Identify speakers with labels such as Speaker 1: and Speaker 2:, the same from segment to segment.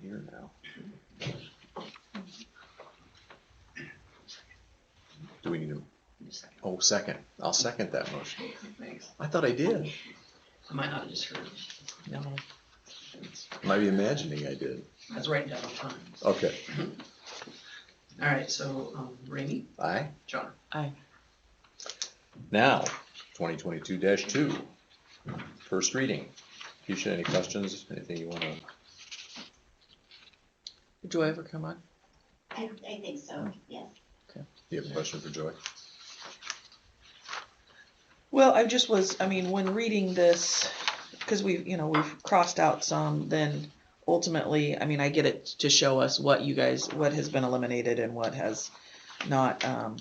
Speaker 1: here now. Do we need to, oh, second, I'll second that motion.
Speaker 2: Thanks.
Speaker 1: I thought I did.
Speaker 2: I might not have just heard.
Speaker 1: No. Might be imagining I did.
Speaker 2: I was writing down the times. All
Speaker 1: Okay,
Speaker 2: right, so, um, Rainey,
Speaker 1: aye?
Speaker 2: John,
Speaker 3: Aye.
Speaker 1: Now, twenty twenty-two two, first reading. Keisha, any questions, anything you wanna,
Speaker 3: Do I ever come on?
Speaker 4: I, I think so, yes.
Speaker 1: do you have a question for Joy?
Speaker 3: Well, I just was, I mean, when reading this, because we've, you know, we've crossed out some, then ultimately, I mean, I get it to show us what you guys, what has been eliminated and what has not, um,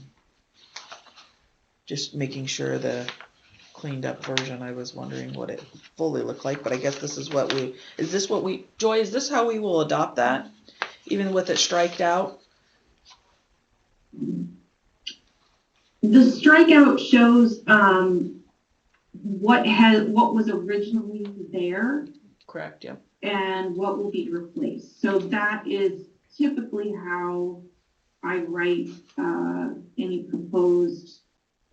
Speaker 3: just making sure the cleaned up version, I was wondering what it fully looked like, but I guess this is what we, is this what we, Joy, is this how we will adopt that? Even with it striked out?
Speaker 5: The strikeout shows um, what has, what was originally there
Speaker 3: Correct, yep.
Speaker 5: and what will be replaced. So that is typically how I write uh, any proposed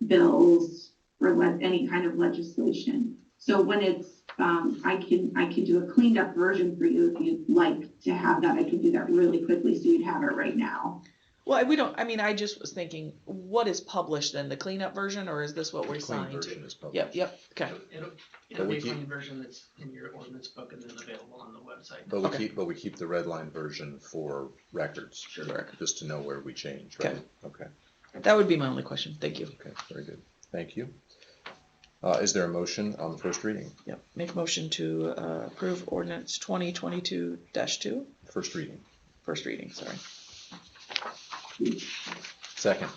Speaker 5: bills or le- any kind of legislation. So when it's, um, I can, I can do a cleaned up version for you if you'd like to have that. I can do that really quickly so you'd have it right now.
Speaker 3: Well, we don't, I mean, I just was thinking, what is published then, the cleanup version, or is this what we're
Speaker 1: Clean
Speaker 3: signed?
Speaker 1: version is public.
Speaker 3: Yep, yep, okay,
Speaker 2: it'll, it'll-
Speaker 1: But
Speaker 2: it'll
Speaker 1: we
Speaker 2: be a
Speaker 1: keep-
Speaker 2: clean version that's in your ordinance book and then available on the website.
Speaker 1: But we
Speaker 3: Okay.
Speaker 1: keep, but we keep the red line version for records.
Speaker 2: Sure.
Speaker 1: Just to know where we change, right? Okay,
Speaker 3: that would be my only question, thank you.
Speaker 1: okay, very good, thank you. Uh, is there a motion on the first reading,
Speaker 3: Yep, make motion to uh, approve ordinance twenty twenty-two dash two,
Speaker 1: first reading,
Speaker 3: first reading, sorry.
Speaker 1: second,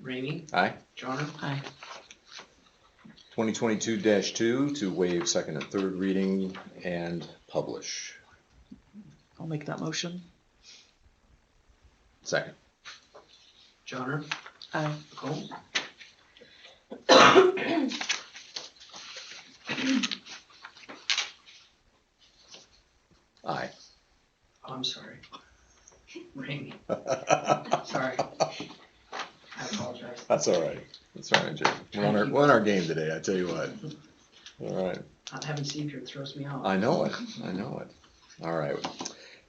Speaker 2: Rainey,
Speaker 1: aye?
Speaker 2: John,
Speaker 3: Aye.
Speaker 1: Twenty twenty-two two to waive second and third reading and publish,
Speaker 3: I'll make that motion.
Speaker 1: second,
Speaker 2: John,
Speaker 3: Aye.
Speaker 2: Nicole,
Speaker 1: aye.
Speaker 2: oh, I'm sorry. Rainey, sorry. I apologize.
Speaker 1: That's all right. That's all right, Jay. We're on our, we're on our game today, I tell you what. All right.
Speaker 2: Not having Seafair throws me off.
Speaker 1: I know it. I know it. All right.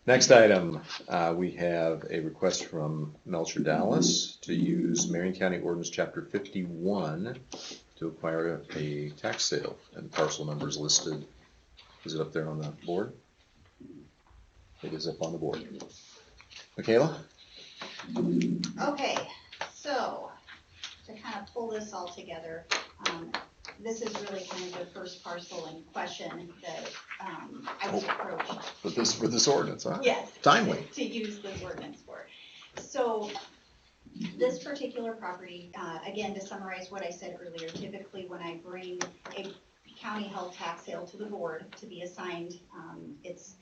Speaker 1: Next item, uh, we have a request from Melcher Dallas to use Marion County Ordinance Chapter fifty-one to acquire a tax sale and parcel numbers listed. Is it up there on the board? It is up on the board. Michaela?
Speaker 4: Okay, so to kind of pull this all together, um, this is really kind of the first parcel in question that, um, I was approached.
Speaker 1: For this, for this ordinance, huh?
Speaker 4: Yes.
Speaker 1: Timely.
Speaker 4: To use this ordinance for. So this particular property, uh, again, to summarize what I said earlier, typically when I bring a county held tax sale to the board to be assigned, um, it's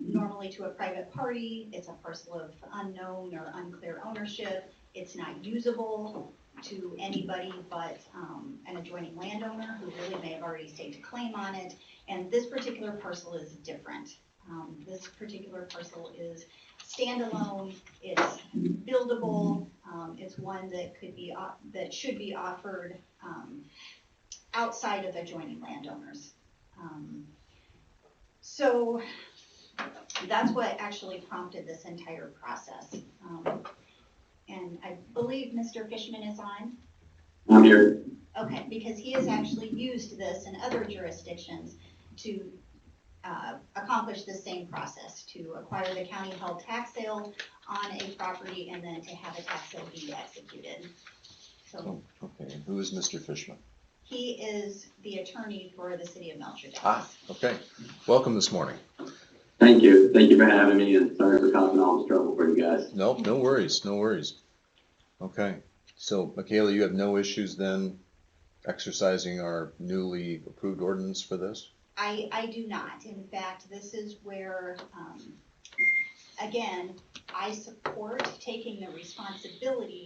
Speaker 4: normally to a private party, it's a parcel of unknown or unclear ownership, it's not usable to anybody but, um, an adjoining landowner who really may have already staked a claim on it, and this particular parcel is different. Um, this particular parcel is standalone, it's buildable, um, it's one that could be, off- that should be offered, um, outside of adjoining landowners. Um, So that's what actually prompted this entire process. Um, And I believe Mr. Fishman is on.
Speaker 5: I'm here.
Speaker 4: Okay, because he has actually used this in other jurisdictions to uh, accomplish the same process, to acquire the county-held tax sale on a property and then to have a tax sale be executed. So
Speaker 1: Oh, Okay, who is Mr. Fishman?
Speaker 4: he is the attorney for the city of Melcher
Speaker 1: Ah,
Speaker 4: Dallas.
Speaker 1: okay. Welcome this morning.
Speaker 6: Thank you. Thank you for having me and sorry for causing all this trouble for you guys.
Speaker 1: Nope, no worries, no worries. Okay, so Michaela, you have no issues then exercising our newly approved ordinance for this?
Speaker 4: I, I do not. In fact, this is where, um, again, I support taking the responsibility